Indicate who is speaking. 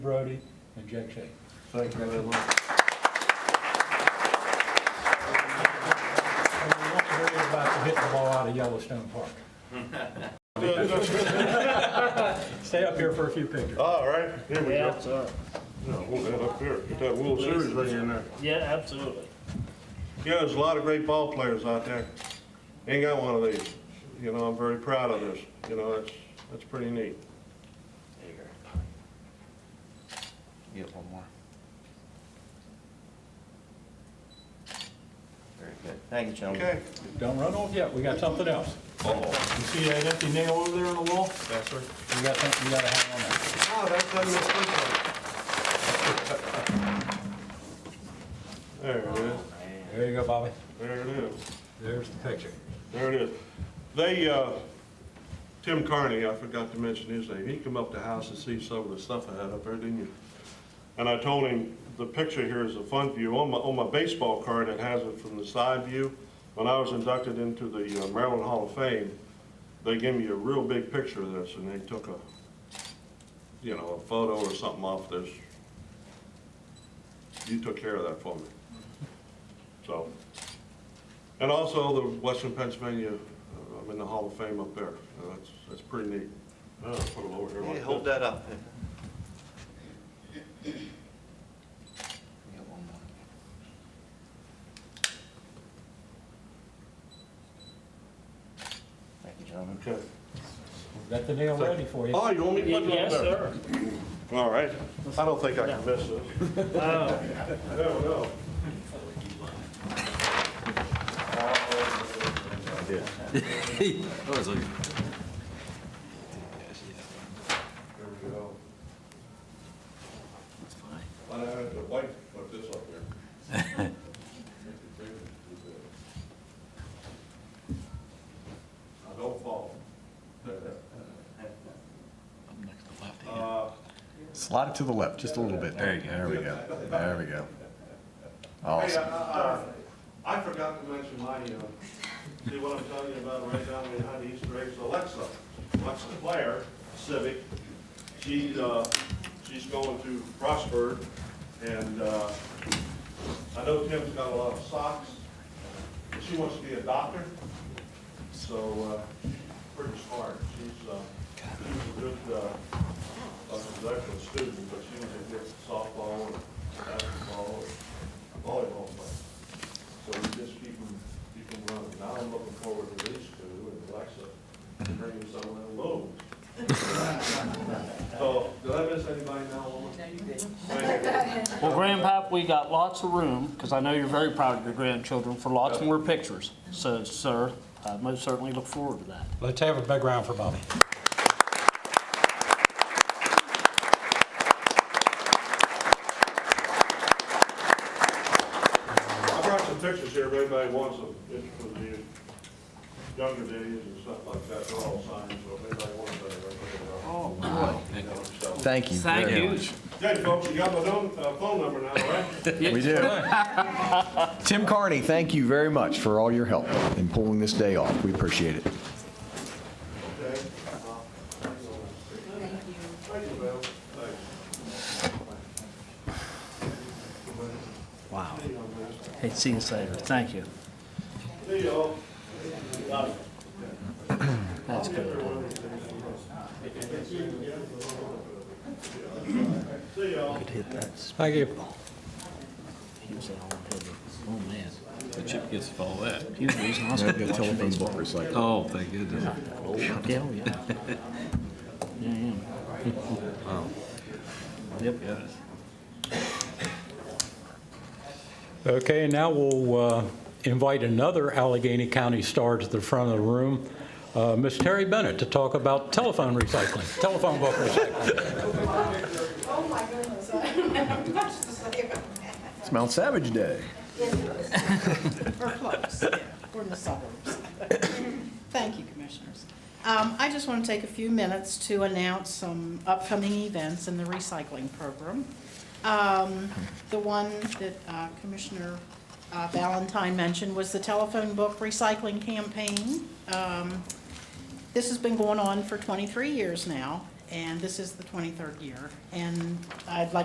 Speaker 1: Brody, and Jack Shea.
Speaker 2: Thank you very much.
Speaker 1: And we want to hear about the hit the ball out of Yellowstone Park. Stay up here for a few pictures.
Speaker 2: All right, here we
Speaker 3: Yeah,
Speaker 2: go.
Speaker 3: absolutely.
Speaker 2: Yeah, hold that up here, get that World Series thing in there.
Speaker 3: Yeah, absolutely.
Speaker 2: Yeah, there's a lot of great ball players out there. Ain't got one of these. You know, I'm very proud of this. You know, that's, that's pretty neat.
Speaker 4: Get one more. Very good. Thank you, gentlemen.
Speaker 2: Okay.
Speaker 1: Don't run off yet, we got something else. You see that empty nail over there on the wall?
Speaker 2: Yes, sir.
Speaker 1: We got something you gotta hang on that.
Speaker 2: Oh, that's on your foot. There it is,
Speaker 1: There you go, Bobby.
Speaker 2: there it is.
Speaker 1: There's the picture.
Speaker 2: There it is. They, uh, Tim Carney, I forgot to mention his name, he come up to the house and see some of the stuff I had up there, didn't you? And I told him, the picture here is a fun view. On my, on my baseball card, it has it from the side view. When I was inducted into the uh, Maryland Hall of Fame, they gave me a real big picture of this, and they took a, you know, a photo or something off this. You took care of that for me. So, and also the Western Pennsylvania, uh, I'm in the Hall of Fame up there. Uh, That's, that's pretty neat. Uh, Put it over here like
Speaker 4: Hey, hold
Speaker 2: this.
Speaker 4: that up. Get one more. Thank you, gentlemen.
Speaker 2: Okay.
Speaker 1: Got the nail ready for you.
Speaker 2: Oh, you want me to put it up
Speaker 3: Yes,
Speaker 2: there?
Speaker 3: sir.
Speaker 2: All right. I don't think I can miss this.
Speaker 3: Oh,
Speaker 2: There we go. There we go. Why don't I have the wife put this up there? Now, don't fall. Uh,
Speaker 5: Slide it to the left, just a little bit. There you go. There we go. There we go.
Speaker 2: Hey,
Speaker 5: Awesome.
Speaker 2: I- I I forgot to mention my, uh, see what I'm telling you about right down behind the Easter eggs, Alexa. Alexa Blair Civic, she's, uh, she's going to Frostburg, and uh, I know Tim's got a lot of socks. She wants to be a doctor, so uh, pretty smart. She's, uh, she's a good, uh, I was an excellent student, but she was a good softball, and basketball, and volleyball player. So we just keep them, keep them running. Now I'm looking forward to these two, and Alexa bringing some of them loads. So, did I miss anybody now, Lois? No, you didn't.
Speaker 3: well, Grandpap, we got lots of room, because I know you're very proud of your grandchildren, for lots more pictures. So, sir, I most certainly look forward to that.
Speaker 1: Let's have a big round for Bobby.
Speaker 2: I brought some pictures here, if anybody wants them, it's for the younger days and stuff like that, they're all signed, so if anybody wants them, Oh, wow.
Speaker 5: Thank you
Speaker 3: Thank
Speaker 5: very
Speaker 3: you.
Speaker 5: much.
Speaker 2: Okay, folks, you got my phone, uh, phone number now, all right?
Speaker 5: We do. Tim Carney, thank you very much for all your help in pulling this day off. We appreciate it.
Speaker 2: Okay. Thank you. Thank you, Bill. Thanks.
Speaker 3: Wow. Hey, see you later. Thank you.
Speaker 2: See y'all.
Speaker 3: That's good.
Speaker 2: See y'all.
Speaker 3: Could hit that.
Speaker 1: Thank you.
Speaker 3: He was at home, didn't he? Oh, man.
Speaker 6: The chip gets to all that.
Speaker 3: He was raised in hospital watching baseball.
Speaker 6: Oh, thank goodness.
Speaker 3: Yeah, oh, yeah. Yeah, yeah. Yep.
Speaker 1: Okay, now we'll uh, invite another Allegheny County star to the front of the room, uh, Miss Terry Bennett, to talk about telephone recycling, telephone book recycling.
Speaker 7: Oh my goodness, I don't have much to say about that.
Speaker 5: It's Mount Savage Day.
Speaker 7: We're close, yeah, we're in the suburbs. Thank you, Commissioners. Um, I just want to take a few minutes to announce some upcoming events in the recycling program. Um, The one that uh, Commissioner uh, Valentine mentioned was the telephone book recycling campaign. Um, This has been going on for 23 years now, and this is the 23rd year. And I'd like